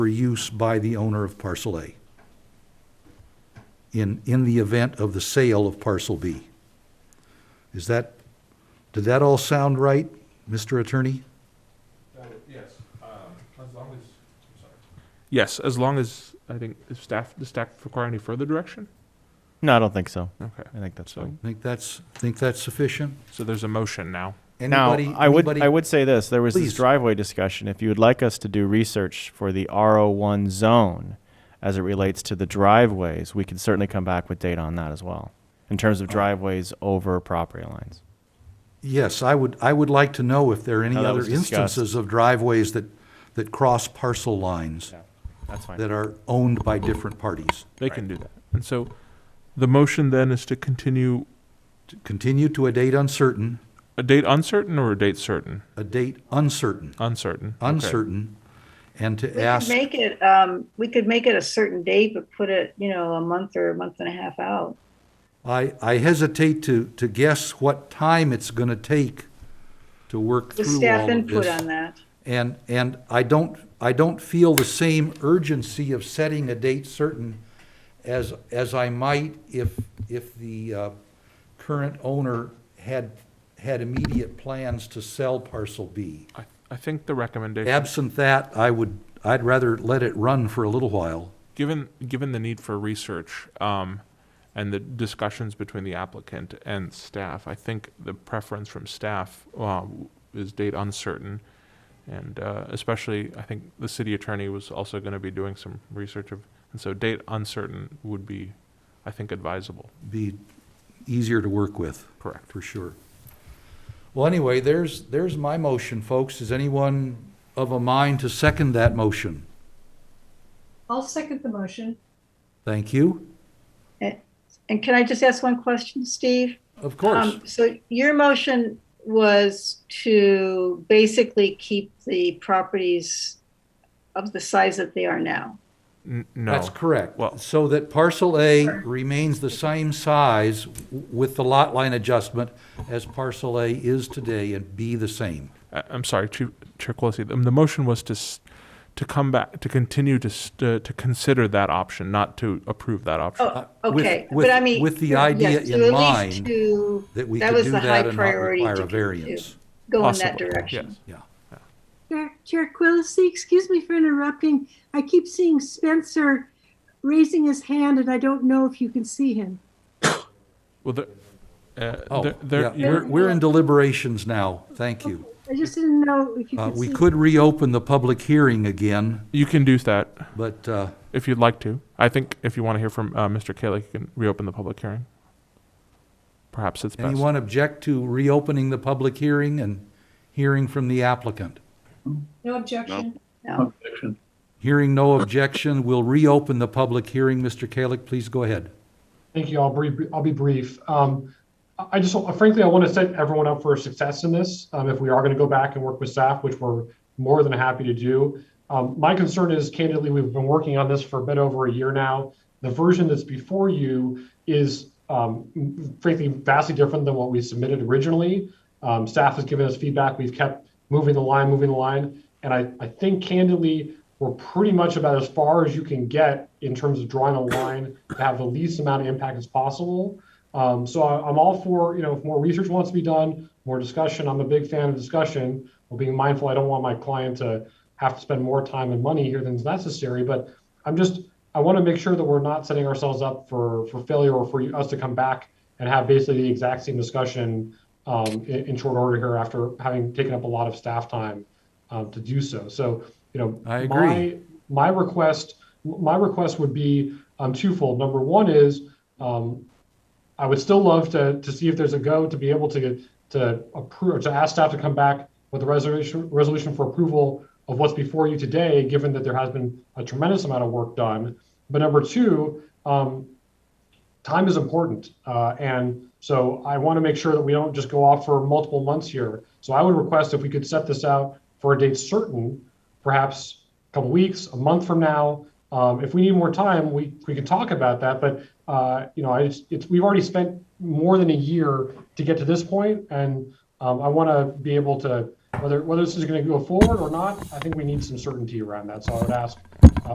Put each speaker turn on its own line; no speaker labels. for use by the owner of parcel A in, in the event of the sale of parcel B. Is that, did that all sound right, Mr. Attorney?
Yes, um, as long as, Yes, as long as, I think, if staff, does staff require any further direction?
No, I don't think so.
Okay,
I think that's
So-
fine.
Think that's, think that's sufficient?
so there's a motion now.
Now,
Anybody-
I would,
anybody-
I would say this, there was
Please.
this driveway discussion. If you would like us to do research for the RO1 zone as it relates to the driveways, we can certainly come back with data on that as well, in terms of
Oh.
driveways over property lines.
Yes, I would, I would like to know if there are any
Now, that
other
was discussed.
instances of driveways that, that cross parcel lines
That's fine.
that are owned by different parties.
They can do that. And so the motion then is to continue
To Continue to a date uncertain,
a date uncertain or a date certain?
a date uncertain,
Uncertain. Okay.
uncertain, and to
We
ask,
could make it, um, we could make it a certain date, but put it, you know, a month or a month and a half out.
I, I hesitate to, to guess what time it's gonna take to work
The
through all of this.
staff input on that.
And, and I don't, I don't feel the same urgency of setting a date certain as, as I might if, if the uh, current owner had, had immediate plans to sell parcel B.
I, I think the recommendation,
Absent that, I would, I'd rather let it run for a little while.
given, given the need for research, um, and the discussions between the applicant and staff, I think the preference from staff, uh, is date uncertain. And, uh, especially, I think the city attorney was also gonna be doing some research of, and so date uncertain would be, I think, advisable.
Be easier to work with.
Correct.
for sure. Well, anyway, there's, there's my motion, folks. Is anyone of a mind to second that motion?
I'll second the motion.
Thank you.
And can I just ask one question, Steve?
Of course.
Um, So your motion was to basically keep the properties of the size that they are now.
N- no.
That's correct.
Well-
So that parcel A remains the same size w- with the lot line adjustment as parcel A is today and B the same.
I- I'm sorry, Chief Chair Quilisi, the, the motion was to, s- to come back, to continue to, s- to, to consider that option, not to approve that option.
Oh,
Uh, with-
okay,
with-
but I mean.
with the
yes,
idea
to
in
at least
mind
To
That we
That
could
was
do
the high
that and not
priority
require
to
a
do.
variance.
go in that
Possible,
direction.
yes.
Chair, Chair Quillisi, excuse me for interrupting. I keep seeing Spencer raising his hand and I don't know if you can see him.
Well, there, uh,
Oh,
there,
yeah,
there,
we're, we're in deliberations now. Thank you.
I just didn't know if you
Uh,
could see.
we could reopen the public hearing again,
you can do that
but, uh,
if you'd like to. I think if you want to hear from, uh, Mr. Kalik, you can reopen the public hearing. Perhaps it's best.
Anyone object to reopening the public hearing and hearing from the applicant?
No objection.
No,
Hearing no objection, we'll reopen the public hearing. Mr. Kalik, please go ahead.
Thank you. I'll be, I'll be brief. Um, I- I just, frankly, I want to set everyone up for success in this. Um, if we are going to go back and work with staff, which we're more than happy to do. Um, my concern is candidly, we've been working on this for a bit over a year now. The version that's before you is, um, frankly, vastly different than what we submitted originally. Um, staff has given us feedback. We've kept moving the line, moving the line. And I, I think candidly, we're pretty much about as far as you can get in terms of drawing a line to have the least amount of impact as possible. Um, so I, I'm all for, you know, if more research wants to be done, more discussion. I'm a big fan of discussion. Well, being mindful, I don't want my client to have to spend more time and money here than's necessary. But I'm just, I want to make sure that we're not setting ourselves up for, for failure or for us to come back and have basically the exact same discussion um, in, in short order here after having taken up a lot of staff time um, to do so. So, you know,
I agree.
My, my request, my request would be um, twofold. Number one is um, I would still love to, to see if there's a go to be able to to approve to ask staff to come back with a resolution resolution for approval of what's before you today, given that there has been a tremendous amount of work done. But number two, um, time is important, uh, and so I want to make sure that we don't just go off for multiple months here. So I would request if we could set this out for a date certain, perhaps a couple weeks, a month from now. Um, if we need more time, we, we can talk about that. But uh, you know, I just, it's, we've already spent more than a year to get to this point, and um, I want to be able to whether whether this is going to go forward or not. I think we need some certainty around that. So I would ask